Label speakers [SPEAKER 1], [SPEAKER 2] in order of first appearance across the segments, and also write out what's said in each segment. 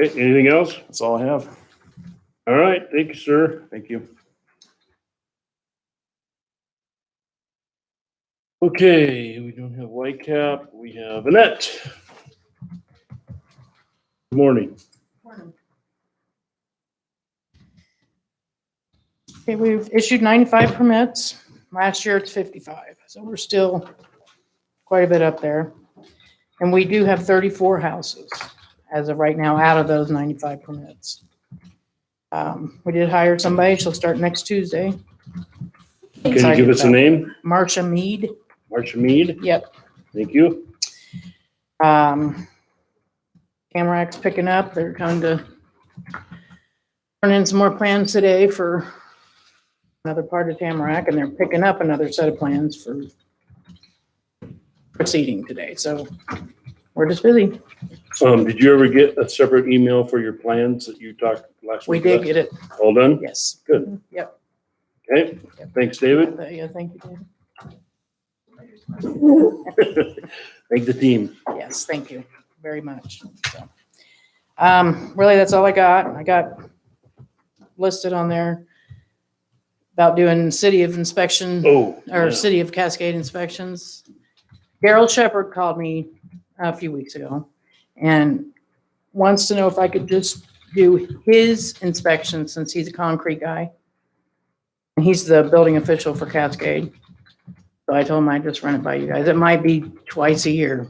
[SPEAKER 1] Okay, anything else?
[SPEAKER 2] That's all I have.
[SPEAKER 1] All right, thank you, sir.
[SPEAKER 2] Thank you.
[SPEAKER 1] Okay, we don't have Whitecap, we have Annette. Good Morning.
[SPEAKER 3] Okay, we've issued 95 permits. Last year it's 55, so we're still quite a bit up there. And we do have 34 houses as of right now out of those 95 permits. Um, We did hire somebody, she'll start next Tuesday.
[SPEAKER 1] Can you give us a name?
[SPEAKER 3] Marcia Mead,
[SPEAKER 1] Marcia Mead,
[SPEAKER 3] yep.
[SPEAKER 1] thank you.
[SPEAKER 3] Um, Tamarack's picking up, they're trying to turn in some more plans today for another part of Tamarack, and they're picking up another set of plans for proceeding today, so we're just busy.
[SPEAKER 1] Um, did you ever get a separate email for your plans that you talked last
[SPEAKER 3] We
[SPEAKER 1] week?
[SPEAKER 3] did
[SPEAKER 1] about?
[SPEAKER 3] get it,
[SPEAKER 1] All done?
[SPEAKER 3] yes.
[SPEAKER 1] Good.
[SPEAKER 3] Yep.
[SPEAKER 1] Okay, thanks, David.
[SPEAKER 3] Yeah, thank you, David.
[SPEAKER 1] Thank the team.
[SPEAKER 3] Yes, thank you very much. So, um, Really, that's all I got. I got listed on there about doing city of inspection
[SPEAKER 1] Oh. yeah.
[SPEAKER 3] or City of Cascade inspections. Daryl Shepherd called me a few weeks ago and wants to know if I could just do his inspection since he's a concrete guy. And he's the building official for Cascade. So I told him I'd just run it by you guys. It might be twice a year.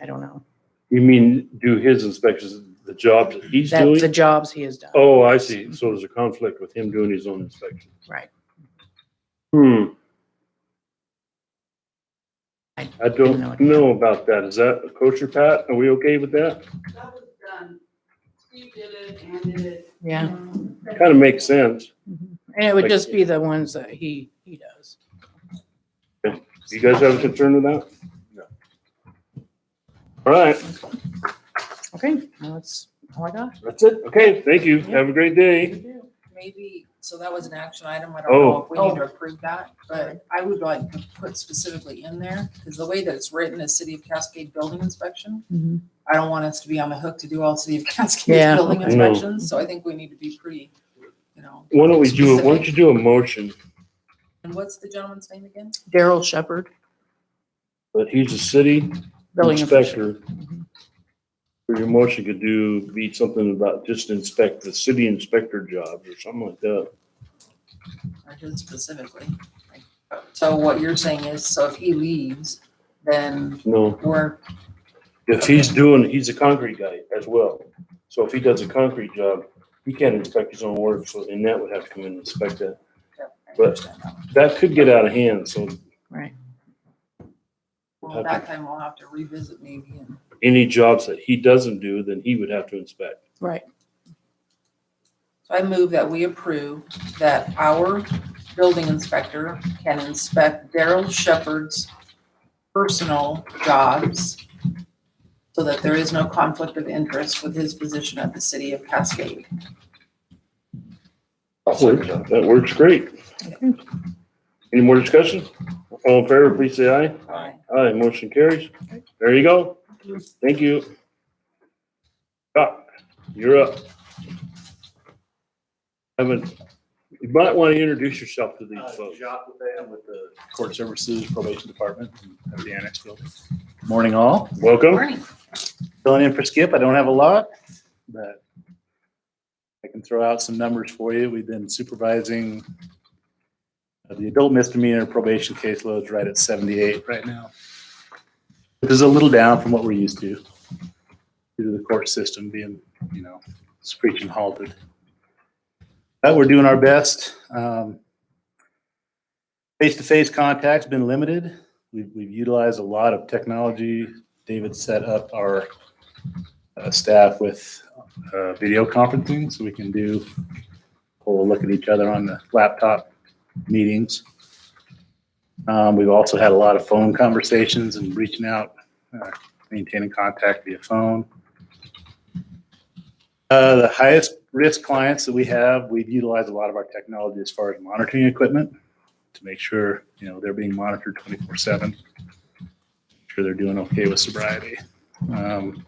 [SPEAKER 3] I don't know.
[SPEAKER 1] You mean do his inspections, the jobs that he's
[SPEAKER 3] That's the
[SPEAKER 1] doing?
[SPEAKER 3] jobs he has done.
[SPEAKER 1] Oh, I see. So there's a conflict with him doing his own inspection.
[SPEAKER 3] Right.
[SPEAKER 1] Hmm.
[SPEAKER 3] I
[SPEAKER 1] I
[SPEAKER 3] didn't know
[SPEAKER 1] don't
[SPEAKER 3] it.
[SPEAKER 1] know about that. Is that a kosher, Pat? Are we okay with that?
[SPEAKER 4] That was done. Steve did it, Ann did it.
[SPEAKER 3] Yeah.
[SPEAKER 1] Kind of makes sense.
[SPEAKER 3] And it would just be the ones that he, he does.
[SPEAKER 1] Do you guys have a concern with that? No. All right,
[SPEAKER 3] Okay, well, that's all I got.
[SPEAKER 1] that's it. Okay, thank you. Have a great day.
[SPEAKER 5] Maybe, so that was an action item, I don't
[SPEAKER 1] Oh.
[SPEAKER 5] know if we need to approve that, but I would like to put specifically in there, because the way that it's written is City of Cascade Building Inspection.
[SPEAKER 3] Mhm.
[SPEAKER 5] I don't want us to be on the hook to do all City of Cascade
[SPEAKER 3] Yeah.
[SPEAKER 5] building
[SPEAKER 1] No.
[SPEAKER 5] inspections, so I think we need to be pretty, you know.
[SPEAKER 1] Why don't we do, why don't you do a motion
[SPEAKER 5] And what's the gentleman's name again?
[SPEAKER 3] Daryl Shepherd,
[SPEAKER 1] that he's a city
[SPEAKER 3] building official.
[SPEAKER 1] inspector? Or your motion could do, be something about just inspect the city inspector jobs or something like that.
[SPEAKER 5] I did specifically. So what you're saying is, so if he leaves, then
[SPEAKER 1] No,
[SPEAKER 5] we're
[SPEAKER 1] if he's doing, he's a concrete guy as well. So if he does a concrete job, he can't inspect his own work, so and that would have to come in and inspect that. But- That could get out of hand, so
[SPEAKER 5] Well, that time we'll have to revisit maybe and
[SPEAKER 1] any jobs that he doesn't do, then he would have to inspect.
[SPEAKER 3] Right.
[SPEAKER 5] So I move that we approve that our building inspector can inspect Daryl Shepherd's personal jobs so that there is no conflict of interest with his position at the city of Cascade.
[SPEAKER 1] That works great. Any more discussion? All in favor, please say aye. Aye, motion carries. There you go. Thank you. Doc, you're up. Haven't, you might want to introduce yourself to these
[SPEAKER 2] Uh,
[SPEAKER 1] folks.
[SPEAKER 2] Jacques Lefebvre, I'm with the Court Services Probation Department of the Annex Building. Morning all.
[SPEAKER 1] Welcome.
[SPEAKER 4] Um,
[SPEAKER 5] Morning.
[SPEAKER 2] Filling in for Skip. I don't have a lot, but I can throw out some numbers for you. We've been supervising uh, the adult misdemeanor probation caseloads right at 78 right now, which is a little down from what we're used to due to the court system being, you know, screeching halted. But we're doing our best. Um, Face-to-face contact's been limited. We've we've utilized a lot of technology. David set up our uh, staff with uh, video conferencing, so we can do, we'll look at each other on the laptop meetings. Um, We've also had a lot of phone conversations and reaching out, uh, maintaining contact via phone. Uh, The highest risk clients that we have, we've utilized a lot of our technology as far as monitoring equipment to make sure, you know, they're being monitored 24/7. Sure they're doing okay with sobriety. Um,